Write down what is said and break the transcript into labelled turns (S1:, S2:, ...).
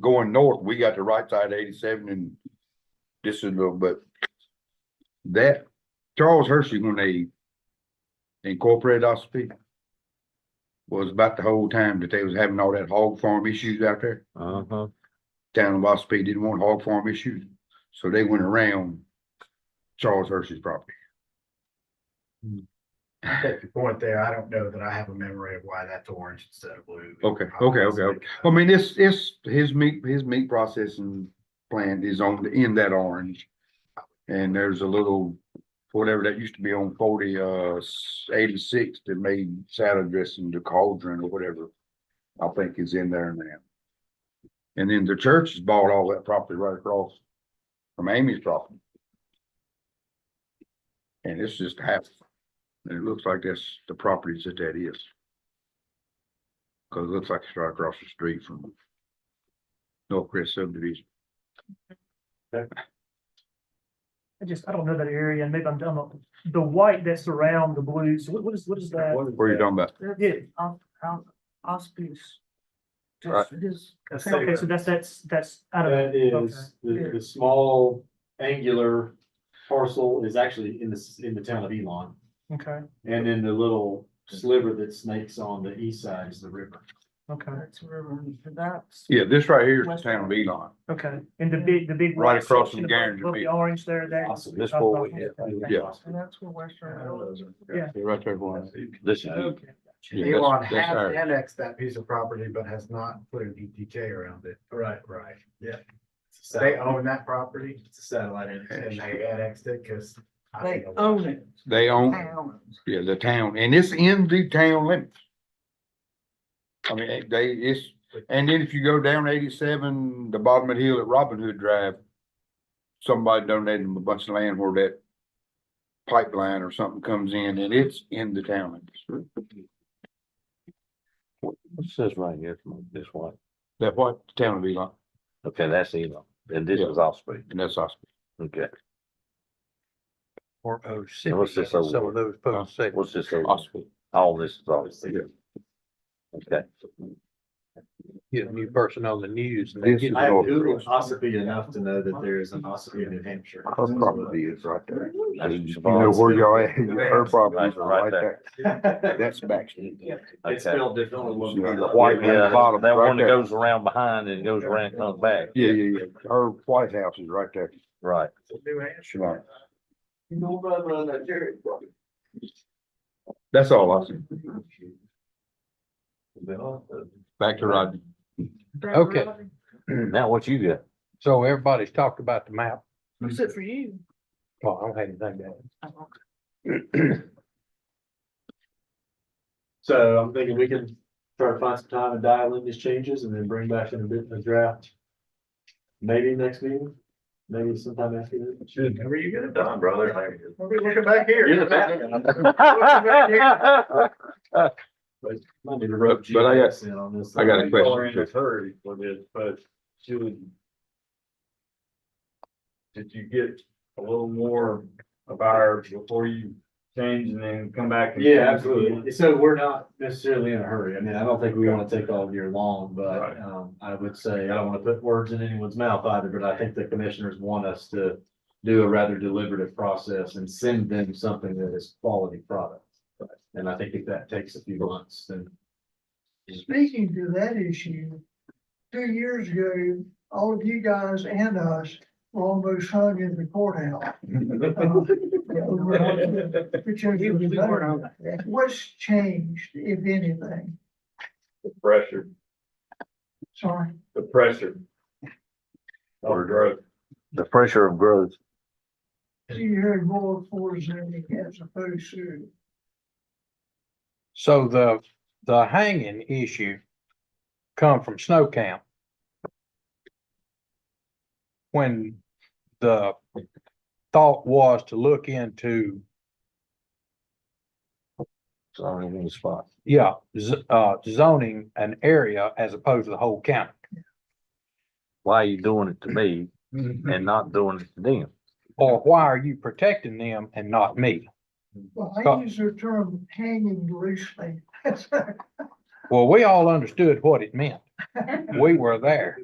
S1: going north, we got the right side of eighty-seven and this is a little bit. That, Charles Hershey, when they incorporated Ospey, was about the whole time that they was having all that hog farm issues out there.
S2: Uh-huh.
S1: Town of Ospey didn't want hog farm issues, so they went around Charles Hershey's property.
S3: take your point there. I don't know that I have a memory of why that's orange instead of blue.
S1: Okay, okay, okay, okay. I mean, it's, it's, his meat, his meat processing plant is on, the in that orange. And there's a little, whatever that used to be on forty, uh, eighty-six that made salad dressing, the cauldron or whatever. I think is in there now. And then the church has bought all that property right across from Amy's property. And it's just half, and it looks like that's the properties that that is. Cause it looks like it's right across the street from North Crest subdivision.
S4: I just, I don't know that area, and maybe I'm dumb, on- the white that's around the blues, what, what is, what is that?
S1: What are you talking about?
S4: Yeah,
S5: Aus- Aus- Auspice.
S1: Right.
S5: Just- just-
S3: That's
S4: okay, so
S3: the-
S4: that's, that's, that's out of,
S2: That is, the, the small angular parcel is actually in this, in the town of Elon.
S4: okay,
S2: And then the little sliver that snakes on the east side is the river.
S4: okay,
S5: That's river, and that's.
S1: Yeah, this right here is the town of Elon.
S4: okay, and the big, the big.
S1: Right
S4: white
S1: across
S4: section above-
S1: from Garen's
S4: above The
S1: Beach.
S4: orange there, there,
S2: Awesome. This
S4: boy we hit.
S1: Yeah.
S5: And that's where Western. Railroad is.
S4: Yeah.
S1: Right there, one.
S2: This
S1: Yeah, that's-
S3: Elon
S1: that's
S3: has
S1: ours.
S3: annexed that piece of property, but has not put an ETJ around it. Right, right, yeah. They own that property. It's a satellite. And they annexed it because.
S5: They own it.
S1: They own,
S5: Town owns
S1: yeah, the town, and it's in the town limits. I mean, it- they, it's, and then if you go down eighty-seven, the bottom of the hill at Robin Hood Drive, somebody donated them a bunch of land where that pipeline or something comes in, and it's in the town limits.
S6: It says right here from this one.
S1: That what, the town of Elon,
S6: Okay, that's Elon. And this
S1: Yeah.
S6: is Osprey.
S1: and that's us.
S6: Okay.
S7: Or oh, Mississippi.
S6: what's this
S7: Some
S6: over?
S7: of those folks say.
S6: What's this? over?
S1: Osprey.
S6: All this is Osprey. Okay.
S7: Get a new person on the news. and they
S1: This
S7: get-
S1: is
S2: I have
S1: North
S2: Googled
S1: Crest.
S2: Osiphe enough to know that there is an Osiphe in New Hampshire.
S1: Her property is right there.
S6: That's
S1: You know
S6: Shabazz.
S1: where y'all at, her property is right
S6: Right
S1: there.
S6: there.
S1: That's back.
S2: It's
S6: Okay.
S2: spelled differently.
S1: Yeah, the white man
S6: Yeah,
S1: bottom,
S6: That
S1: right
S6: one that
S1: there.
S6: goes around behind and goes around, and comes back.
S1: Yeah, yeah, yeah. Her White House is right there.
S6: Right.
S1: Shalom.
S2: No brother on that, Jerry.
S1: That's all I see. Back to Rodney.
S5: that
S7: Okay.
S5: road.
S1: Hmm.
S6: Now what you got?
S7: So everybody's talked about the map.
S5: Who's it for you?
S7: Well, I don't have anything to add.
S2: So I'm thinking we can try to find some time to dial in these changes and then bring back in a bit of a draft. Maybe next meeting, maybe sometime after that.
S3: Whenever you get it done, brother. We're looking back here.
S2: You're the man. Might need to rope
S1: But- but I got-
S2: GPS in on this.
S1: I got a question.
S8: hurry for this, but should. Did you get a little more of ours before you change and then come back? and
S2: Yeah,
S8: change again?
S2: absolutely. So we're not necessarily in a hurry. I mean, I don't think we want to take all year long, but
S8: Right.
S2: um, I would say, I don't want to put words in anyone's mouth either, but I think the commissioners want us to do a rather deliberative process and send them something that is quality product. And I think if that takes a few months, then
S5: Speaking to that issue, two years ago, all of you guys and us were almost hung in the courthouse. Uh, What's changed, if anything?
S8: The pressure,
S5: Sorry.
S8: the pressure. Or growth.
S6: The pressure of growth.
S5: You heard more for zoning as opposed to.
S7: So the, the hanging issue come from snow camp. When the thought was to look into,
S6: It's only one spot.
S7: yeah, z- uh, zoning an area as opposed to the whole county.
S6: Why are you doing it to me and not doing it to them?
S7: Or why are you protecting them and not me?
S5: Well,
S7: Scott.
S5: I use the term hanging loosely.
S7: Well, we all understood what it meant. We were there.